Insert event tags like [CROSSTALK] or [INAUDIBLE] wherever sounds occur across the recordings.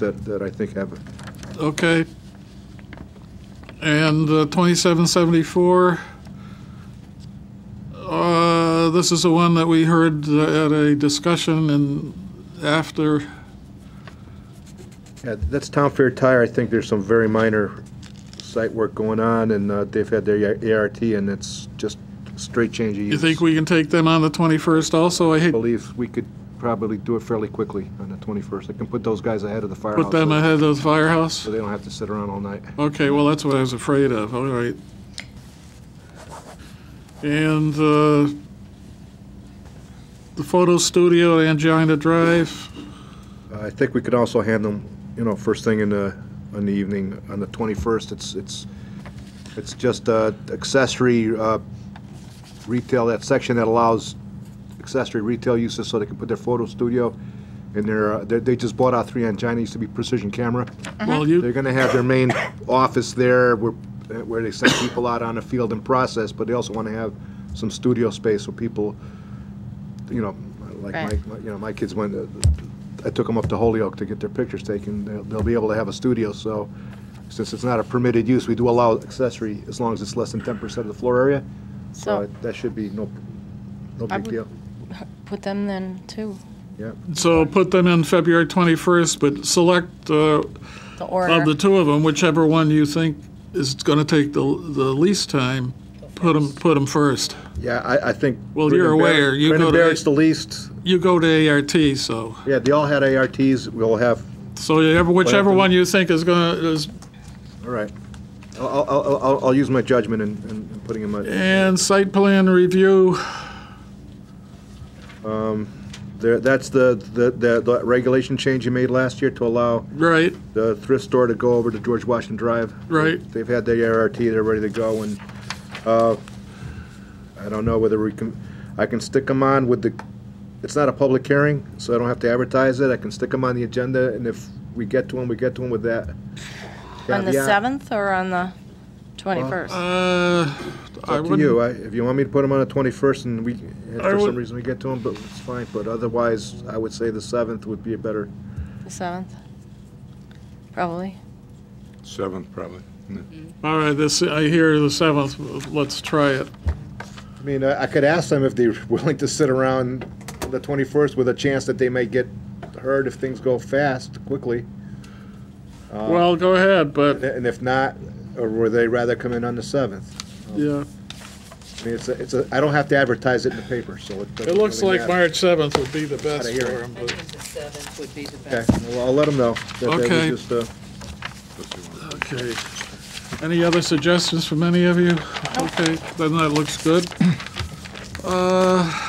that, that I think have, Okay. And uh, 2774, uh, this is the one that we heard uh, at a discussion and after, yeah, that's Town Fair Tire, I think there's some very minor site work going on, and uh, they've had their ART, and it's just straight change of use. you think we can take them on the 21st also? I I hate to believe we could probably do it fairly quickly on the 21st. I can put those guys ahead of the firehouse. put them ahead of the firehouse. So they don't have to sit around all night. Okay, well, that's what I was afraid of, all right. And uh, the photo studio at Angina Drive, Uh, I think we could also hand them, you know, first thing in the, in the evening, on the 21st, it's, it's, it's just uh, accessory uh, retail, that section that allows accessory retail uses so they can put their photo studio in their, uh, they they just bought out three Angina, used to be Precision Camera. well, you... They're gonna have their main office there where, where they send people out on the field and process, but they also wanna have some studio space where people, you know, like Right. my, my- you know, my kids went, uh, I took them up to Holyoke to get their pictures taken. They'll, they'll be able to have a studio, so since it's not a permitted use, we do allow accessory as long as it's less than ten percent of the floor area. So So it- that should be no, no big I would- deal. put them then too, Yeah, So put them in February 21st, but select uh, the of the order. two of them, whichever one you think is going to take the the least time, put them, first. yeah, I, I think. Well, you're Brendan Barrett- aware, you Brendan go to- Barrett's the least. You go to ART, so, Yeah, they all had ARTs. We'll have so you have- whichever Well, one you think is going to, is All right. I'll, I'll- I'll, I'll, I'll use my judgment in, in in putting in my, and site plan review, there, that's the, the, the the regulation change you made last year to allow right, the thrift store to go over to George Washington Drive. right. They've had their ART, they're ready to go, and, uh, I don't know whether we can, I can stick them on with the, it's not a public hearing, so I don't have to advertise it, I can stick them on the agenda, and if we get to them, we get to them with that. On the caveat. 7th or on the 21st? Uh, It's I Up to you, wouldn't, I, if you want me to put them on the twenty-first and we, and for I some would- reason we get to them, but it's fine, but otherwise, I would say the seventh would be a better. The 7th? Probably. Seventh, probably. all right, this, I hear the 7th, let's try it. I mean, I, I could ask them if they're [LAUGHS] willing to sit around the twenty-first with a chance that they may get heard if things go fast, quickly. Um, Well, uh, go ahead, but, And if not, or would they rather come in on the seventh? yeah, I mean, it's a, it's a, I don't have to advertise it in the paper, so it doesn't it looks really like matter. March 7th would be the best Outta here. for 'em, but- The seventh would be the best. Okay, well, I'll let them know. that they would Okay. just, uh, Okay. Any other suggestions from any of you? Okay, then that looks good. Uh,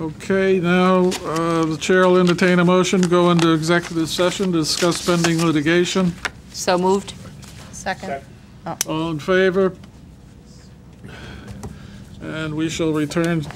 Okay, now, uh, the chair will entertain a motion, go into executive session, to discuss pending litigation. So moved? Second? All in favor? And we shall return